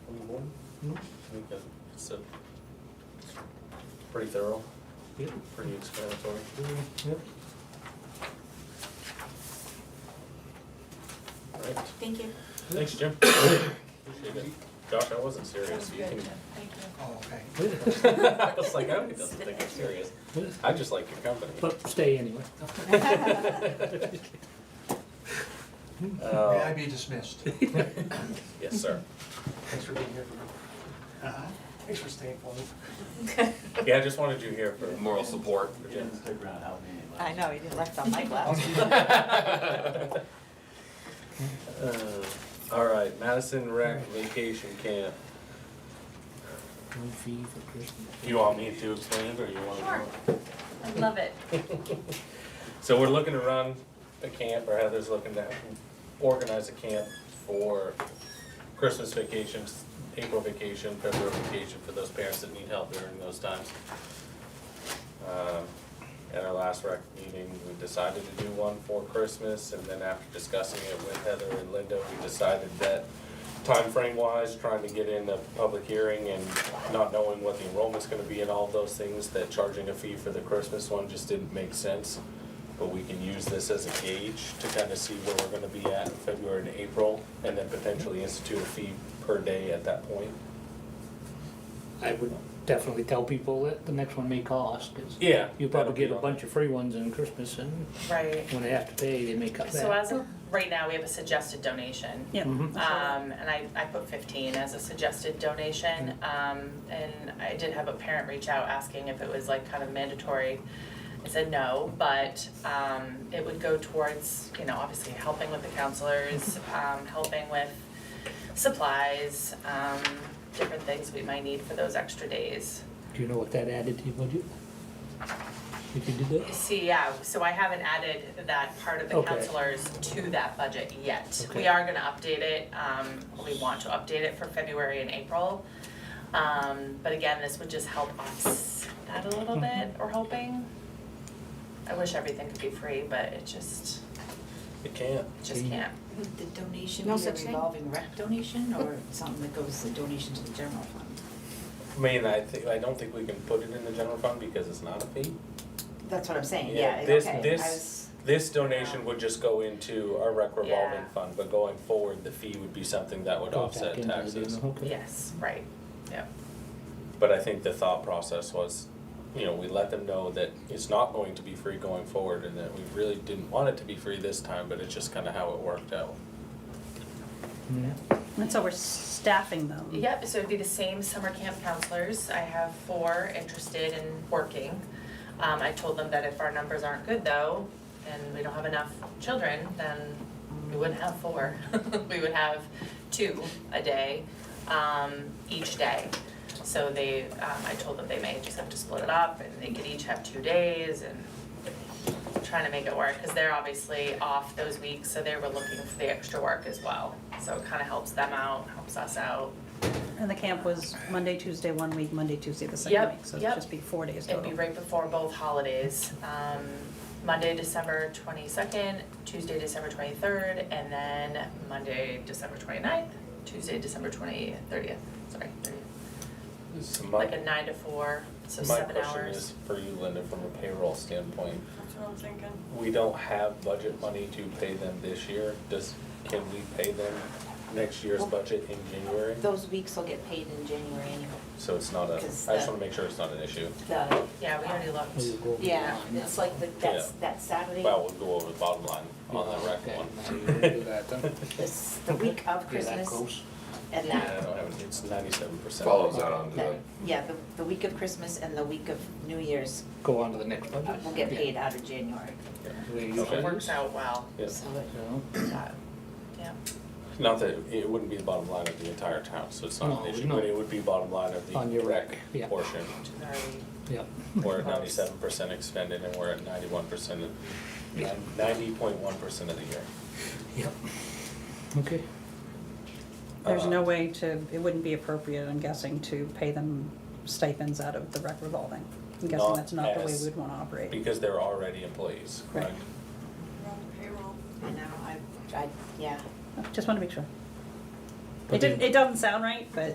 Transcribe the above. We can, it's a, it's pretty thorough, Yep. pretty explanatory. Yep. Right, Thank you. thanks, Jim. Appreciate it. Josh, I wasn't Sounds serious, you good, can. Jeff. Thank you. Oh, okay. I was like, I don't doesn't think I'm serious, Yep. I just like your company. But stay anyway. May Uh, I be dismissed? Yes, sir. Thanks for being here for me. Uh-huh. Thanks for staying for me. Yeah, I just wanted you here for. moral support. Yeah. I know, you didn't left on my Oh, glass. Uh, All right, Madison Rec Vacation Camp. No fee for Christmas. You want me to explain it or you want to? Sure. I love it. So we're looking to run a camp, or Heather's looking to organize a camp for Christmas vacations, April vacation, February vacation, for those parents that need help during those times. Um, At our last rec meeting, we decided to do one for Christmas, and then after discussing it with Heather and Linda, we decided that time frame wise, trying to get in a public hearing and not knowing what the enrollment's gonna be and all those things, that charging a fee for the Christmas one just didn't make sense. But we can use this as a gauge to kind of see where we're gonna be at in February and April, and then potentially institute a fee per day at that point. I would definitely tell people that the next one may cost, 'cause Yeah. you probably get a bunch of free ones in Christmas, and Right. when they have to pay, they may cut So back. as of right now, we have a suggested donation. Yep. Mhm. Um, and I, I put fifteen as a suggested donation, um, and I did have a parent reach out asking if it was like kind of mandatory. I said no, but, um, it would go towards, you know, obviously helping with the counselors, um, helping with supplies, um, different things we might need for those extra days. Do you know what that added to your budget? If you did that? See, yeah, so I haven't added that part of the Okay. counselors to that budget yet. Okay. We are gonna update it, um, we want to update it for February and April. Um, but again, this would just help us that a little Mm-hmm. bit, we're hoping. I wish everything could be free, but it just, It can. it just can't. Would the donation No be a such thing. revolving rec donation or something that goes, the donation to the general fund? I mean, I think, I don't think we can put it in the general fund because it's not a fee. That's what I'm saying, Yeah, yeah, this- okay, I this- was, This donation would just go into our rec revolving Yeah. fund, but going forward, the fee would be something that would Go offset back into taxes. the general, okay. Yes, right, yeah. But I think the thought process was, you know, we let them know that it's not going to be free going forward and that we really didn't want it to be free this time, but it's just kind of how it worked out. Yeah. And so we're staffing them. Yep, so it'd be the same summer camp counselors. I have four interested in working. Um, I told them that if our numbers aren't good though, and we don't have enough children, then we wouldn't have four. We would have two a day, um, each day. So they, um, I told them they may just have to split it up and they could each have two days and trying to make it work, cause they're obviously off those weeks, so they were looking for the extra work as well. So it kinda helps them out, helps us out. And the camp was Monday, Tuesday, one week, Monday, Tuesday, the Yep, second week, so it'd yep. just be four days It'd total. be right before both holidays, um, Monday, December twenty-second, Tuesday, December twenty-third, and then Monday, December 29th, Tuesday, December twenty, thirtieth, sorry, thirtieth. So Like my, a nine to four, so my seven question hours. is for you, Linda, from a payroll standpoint, That's what I'm thinking. we don't have budget money to pay them this year. Does, can we pay them next year's budget in January? those weeks will get paid in January anyway, So it's not a, I just Because wanna the- make sure it's not an issue. the, Yeah, we Or already you looked. go over the yeah, line. it's like the, that's, Yeah. that Saturday, Well, we'll go over the bottom line on that rec Okay, one. now you can do that then. this, the week of Be that Christmas close. and Yeah, that, I don't have, it. it's ninety-seven percent. Follows that onto that, the, yeah, the, the week of Christmas and the week of New Year's Go on to the next uh, budget. will get Yeah. paid out of January, The way it Okay. So usually It works is. out well, Yes, so it, So, that, yeah. not that, it wouldn't be the bottom line of the entire town, so it's not No, an issue, no. but it would be bottom line of On the your rec rec, yeah. portion. which is already- Yep. We're at ninety-seven percent expended and we're at ninety-one percent, Yeah. ninety point one percent of the year. Yep. Okay. There's uh, no way to, it wouldn't be appropriate, I'm guessing, to pay them stipends out of the rec revolving. I'm guessing Not that's not the way as- we'd wanna operate. Because they're already employees, Right. correct? We're on payroll. I know, I, I, yeah. Just wanna make sure. But It didn't, then- it doesn't sound right, but